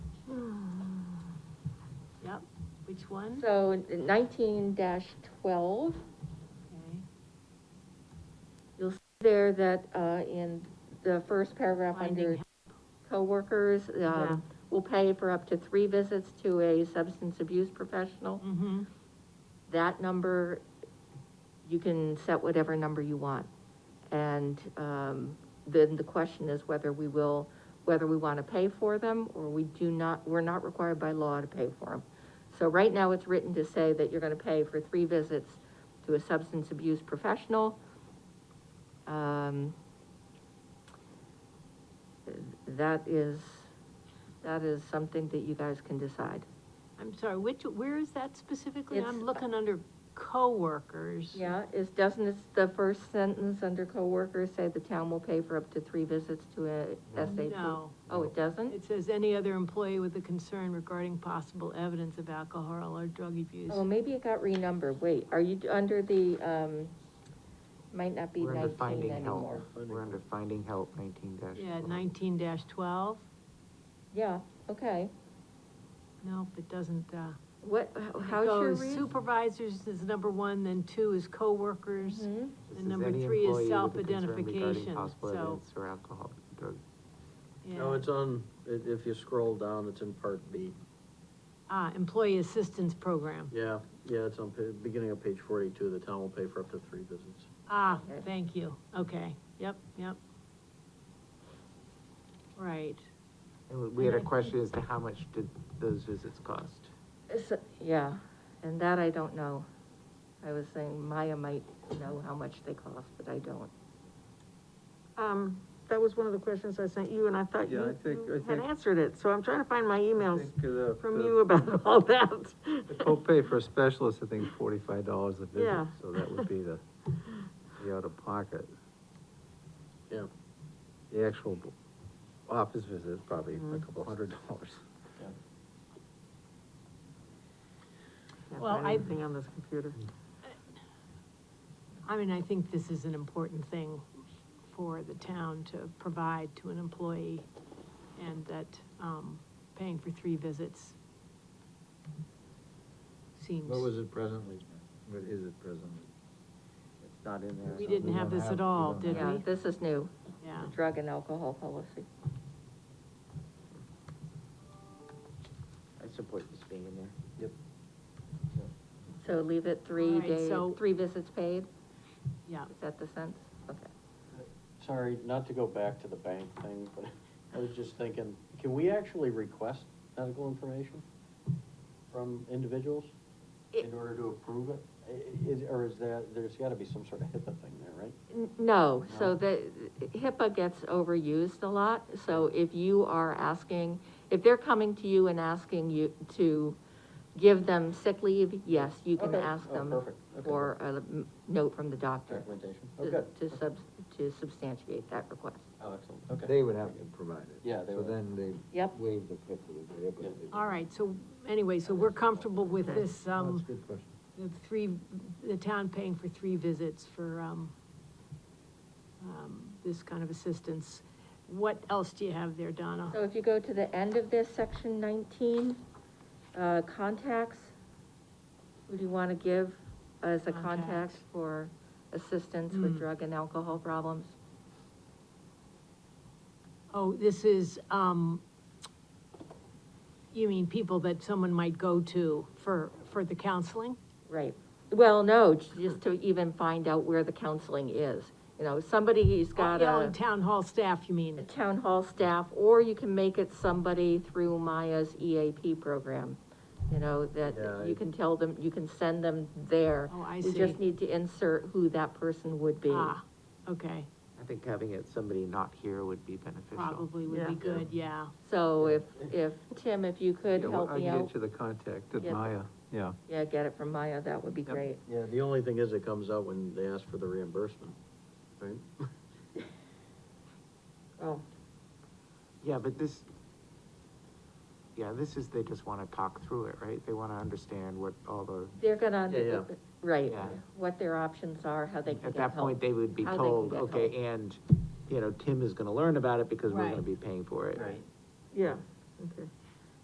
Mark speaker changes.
Speaker 1: Hmm. Which one?
Speaker 2: So nineteen twelve,
Speaker 1: Okay.
Speaker 2: you'll see there that, uh, in the first paragraph
Speaker 1: Finding
Speaker 2: under coworkers,
Speaker 1: Yeah.
Speaker 2: um, will pay for up to three visits to a substance abuse professional.
Speaker 1: Mm-hmm,
Speaker 2: That number, you can set whatever number you want. And, um, then the question is whether we will, whether we want to pay for them or we do not, we're not required by law to pay for them. So right now it's written to say that you're going to pay for three visits to a substance abuse professional. Um, That is, that is something that you guys can decide.
Speaker 1: I'm sorry, which, where is that specifically? I'm
Speaker 2: It's-
Speaker 1: looking under coworkers.
Speaker 2: Yeah, is, doesn't it, the first sentence under coworkers say the town will pay for up to three visits to a SAP?
Speaker 1: No,
Speaker 2: Oh, it doesn't?
Speaker 1: it says any other employee with a concern regarding possible evidence of alcohol or drug abuse.
Speaker 2: Oh, maybe it got renumbered, wait, are you d- under the, um, might not be
Speaker 3: We're under
Speaker 2: nineteen
Speaker 3: finding help,
Speaker 2: anymore?
Speaker 3: we're under finding help, nineteen dash.
Speaker 1: Yeah, nineteen twelve,
Speaker 2: Yeah, okay,
Speaker 1: nope, it doesn't, uh.
Speaker 2: what,
Speaker 1: it
Speaker 2: how's your
Speaker 1: goes
Speaker 2: read?
Speaker 1: Supervisors is number one, then two is coworkers,
Speaker 2: Mhm.
Speaker 1: and number three is self-identification,
Speaker 3: Possible
Speaker 1: so-
Speaker 3: evidence or alcohol, drug,
Speaker 4: No,
Speaker 1: yeah.
Speaker 4: it's on, i- if you scroll down, it's in part B.
Speaker 1: Ah, employee assistance program,
Speaker 4: Yeah, yeah, it's on, pa- beginning of page forty-two, the town will pay for up to three visits.
Speaker 1: ah,
Speaker 2: Okay.
Speaker 1: thank you, okay, yep, yep. Right,
Speaker 3: And we- we had a
Speaker 1: And I
Speaker 3: question as to how much did those visits cost?
Speaker 2: It's- Yeah, and that I don't know. I was saying Maya might know how much they cost, but I don't.
Speaker 5: Um, that was one of the questions I sent you, and I thought
Speaker 6: Yeah, I
Speaker 5: you,
Speaker 6: think- I
Speaker 5: you had
Speaker 6: think-
Speaker 5: answered it, so I'm trying to find my emails
Speaker 6: think, uh,
Speaker 5: from
Speaker 6: the-
Speaker 5: you about all that.
Speaker 6: The copay for a specialist, I think forty-five dollars a
Speaker 5: Yeah.
Speaker 6: visit, so that would be the, the out-of-pocket.
Speaker 4: Yeah.
Speaker 6: The actual b- office visit is probably
Speaker 1: Mm-hmm.
Speaker 6: a couple hundred dollars.
Speaker 5: Can't
Speaker 1: Well,
Speaker 5: find
Speaker 1: I-
Speaker 5: anything on this computer.
Speaker 6: Hmm.
Speaker 1: I mean, I think this is an important thing for the town to provide to an employee, and that, um, paying for three visits seems.
Speaker 6: it presently? What is it presently?
Speaker 3: It's not in
Speaker 1: We didn't have this at all, Oh, did
Speaker 2: Yeah,
Speaker 1: we?
Speaker 2: this is new,
Speaker 1: Yeah,
Speaker 2: the drug and alcohol policy.
Speaker 3: I support this being in there.
Speaker 2: So leave it three
Speaker 1: Alright,
Speaker 2: days,
Speaker 1: so-
Speaker 2: three visits paid,
Speaker 1: yeah,
Speaker 2: is that the sense? Okay.
Speaker 4: Sorry, not to go back to the bank thing, but I was just thinking, can we actually request medical information from individuals in order to approve it? I- Is, or is there, there's gotta be some sort of HIPAA thing there, right?
Speaker 2: N- No, so
Speaker 4: No?
Speaker 2: the, HIPAA gets overused a lot, so if you are asking, if they're coming to you and asking you to give them sick leave, yes, you can
Speaker 4: Okay.
Speaker 2: ask
Speaker 4: Oh,
Speaker 2: them
Speaker 4: perfect. Okay.
Speaker 2: for a m- note from the doctor
Speaker 4: Documentation, oh,
Speaker 2: to
Speaker 4: good,
Speaker 2: to sub, to substantiate that request.
Speaker 4: oh, excellent, okay.
Speaker 6: They would have to provide it.
Speaker 4: Yeah, they
Speaker 6: So
Speaker 4: would.
Speaker 6: then they.
Speaker 2: Yep.
Speaker 6: Waive the fifth of the day, but.
Speaker 4: Yeah.
Speaker 6: they-
Speaker 1: all right, so, anyway, so we're comfortable with this, um.
Speaker 6: That's a good question.
Speaker 1: the three, the town paying for three visits for, um, um, this kind of assistance. What else do you have there, Donna?
Speaker 2: So if you go to the end of this, section nineteen, uh, contacts, who do you wanna give as a contact
Speaker 1: Contacts.
Speaker 2: for assistance with
Speaker 1: Hmm.
Speaker 2: drug and alcohol problems?
Speaker 1: Oh, this is, um, you mean people that someone might go to for, for the counseling?
Speaker 2: Right, well, no, j- just to even find out where the counseling is, you know, somebody's got
Speaker 1: Oh, Yeah,
Speaker 2: a,
Speaker 1: and Town hall staff, you
Speaker 2: a
Speaker 1: mean?
Speaker 2: town hall staff, or you can make it somebody through Maya's EAP program. You know, that
Speaker 6: Yeah,
Speaker 2: you
Speaker 6: I-
Speaker 2: can tell them, you can send them there.
Speaker 1: Oh, I
Speaker 2: You just
Speaker 1: see.
Speaker 2: need to insert who that person would be.
Speaker 1: Ah, okay,
Speaker 3: I think having it, somebody not here would be beneficial.
Speaker 1: probably would be good, yeah.
Speaker 2: So if, if, Tim, if you could
Speaker 6: Yeah, well,
Speaker 2: help me
Speaker 6: I can
Speaker 2: out,
Speaker 6: get you the contact at
Speaker 2: Yeah.
Speaker 6: Maya, yeah.
Speaker 2: yeah, get it from Maya, that would be
Speaker 3: Yep.
Speaker 2: great.
Speaker 4: Yeah, the only thing is it comes out when they ask for the reimbursement, right?
Speaker 2: Oh,
Speaker 3: Yeah, but this, yeah, this is, they just wanna talk through it, right? They wanna understand what all the,
Speaker 2: they're gonna,
Speaker 4: Yeah, yeah.
Speaker 2: right,
Speaker 3: Yeah.
Speaker 2: what their options are, how they can
Speaker 3: at
Speaker 2: get help.
Speaker 3: that point, they would be
Speaker 2: How they can
Speaker 3: told,
Speaker 2: get
Speaker 3: okay, and, you know, Tim is gonna learn about it because we're
Speaker 1: Right.
Speaker 3: gonna be paying for it.
Speaker 5: Yeah, okay.